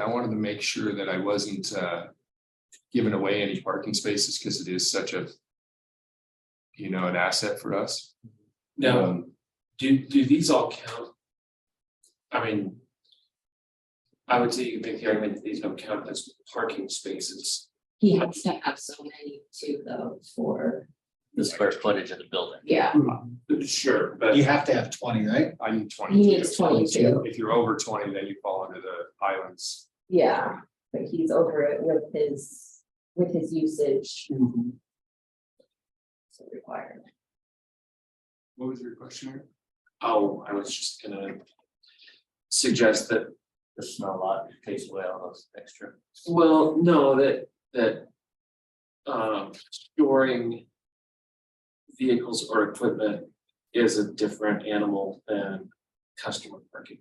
I wanted to make sure that I wasn't uh giving away any parking spaces because it is such a you know, an asset for us. Now, Um, do, do these all count? I mean, I would say you can make the argument that these don't count as parking spaces. He has to have so many too though for, the square footage of the building. yeah, Sure, but You have to have twenty, right? I'm he twenty-two. needs twenty-two, If you're over twenty, then you fall under the islands. yeah, but he's over it with his, with his usage Mm-hmm. requirement. What was your question? Eric? Oh, I was just gonna suggest that, The smell lot takes away all those extra. well, no, that, that um, storing vehicles or equipment is a different animal than customer parking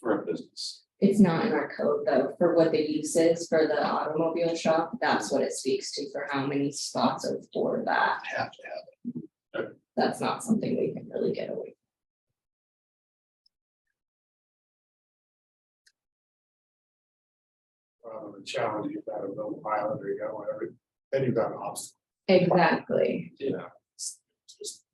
for a business. It's not in our code though, for what the use is for the automobile shop, that's what it speaks to for how many spots are for that. Have to have. That's not something we can really get away. uh, the challenge, you've got a little pilot or you got whatever, then you've got an obstacle. Exactly, Just-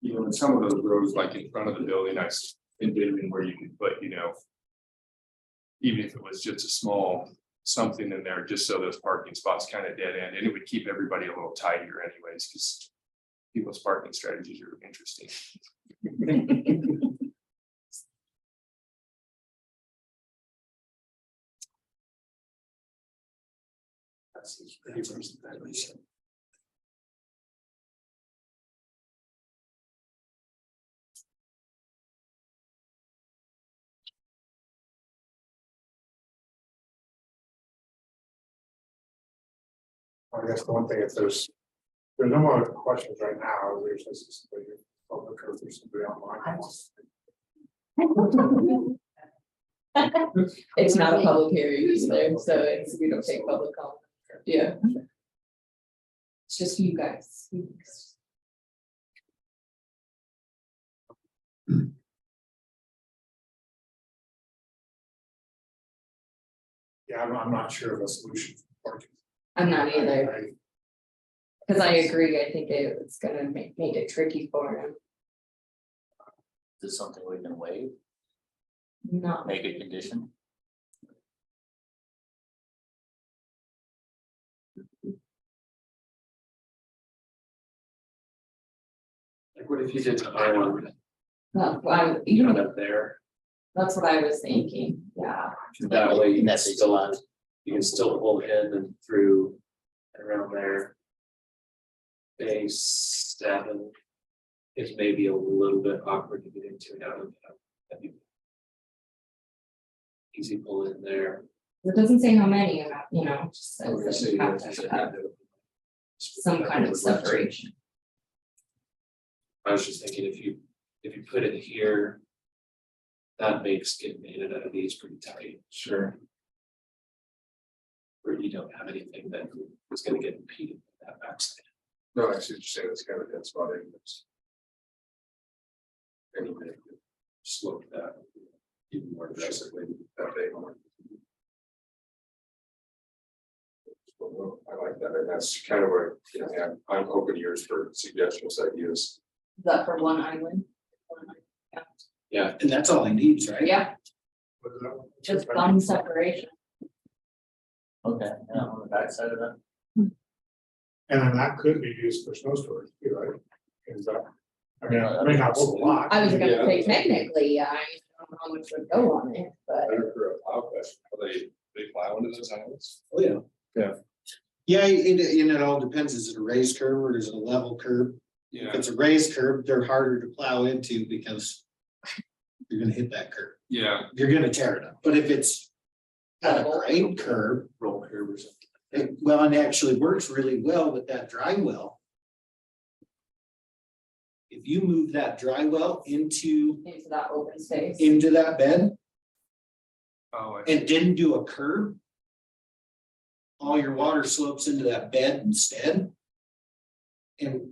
You know, and some of those roads, like in front of the building, I s- envision where you can put, you know. Even if it was just a small something in there, just so those parking spots kind of dead end, and it would keep everybody a little tidier anyways, because. People's parking strategies are interesting. That seems pretty reasonable, at least. I guess the one thing, if there's, there's no more questions right now, there's just, but you public or if there's somebody online. who wants to- it's not a public hearing either, so it's, we don't take public comment, yeah. It's just you guys. Yeah, I'm, I'm not sure of a solution. for parking. I'm not either, I- cause I agree, I think it- it's gonna make, make it tricky for him, Is this something we can waive, not. make a condition? Like, what if you did to Iowa, Well, I- you know, up there? that's what I was thinking, yeah, That way you can That's- still, uh, you can still pull in and through and around there. Base seven is maybe a little bit awkward to get into uh, and out of. that'd be Easy pull in there. it doesn't say how many, and I- you know, it just Or says you that say you have there's- to have uh, some kind of separation. I was just thinking, if you, if you put it here. That makes getting in and out of these pretty tight. Sure. Where you don't have anything that is gonna get impeded by that backside. No, I see what you're saying, it's kind of, that's about it. It's- Anyway, slope that even more aggressively. that day on. Well, I like that, and that's kind of where, you know, I'm- I'm open ears for suggestions, ideas. Is that for one island? Yeah, And that's all he needs, right? Yeah, uh, just one separation, Okay, yeah, on the backside of that. And then that could be used for snow storage, too, right? Is that, I mean, I may not hold a lot. I was gonna Yeah. say technically, yeah, I don't know how much would go on it, but Better for a plow question, are they, they plow into those islands? oh yeah. Yeah, and it, and it all depends, is it a raised curb or is it a level curb? If Yeah, it's a raised curb, they're harder to plow into because you're gonna hit that curb, yeah, you're gonna tear it up, but if it's got a grade curb, Roll curve or something. it, well, and actually works really well with that dry well. If you move that dry well into, into that open space. into that bed, oh, I- and didn't do a curb. All your water slopes into that bed instead. And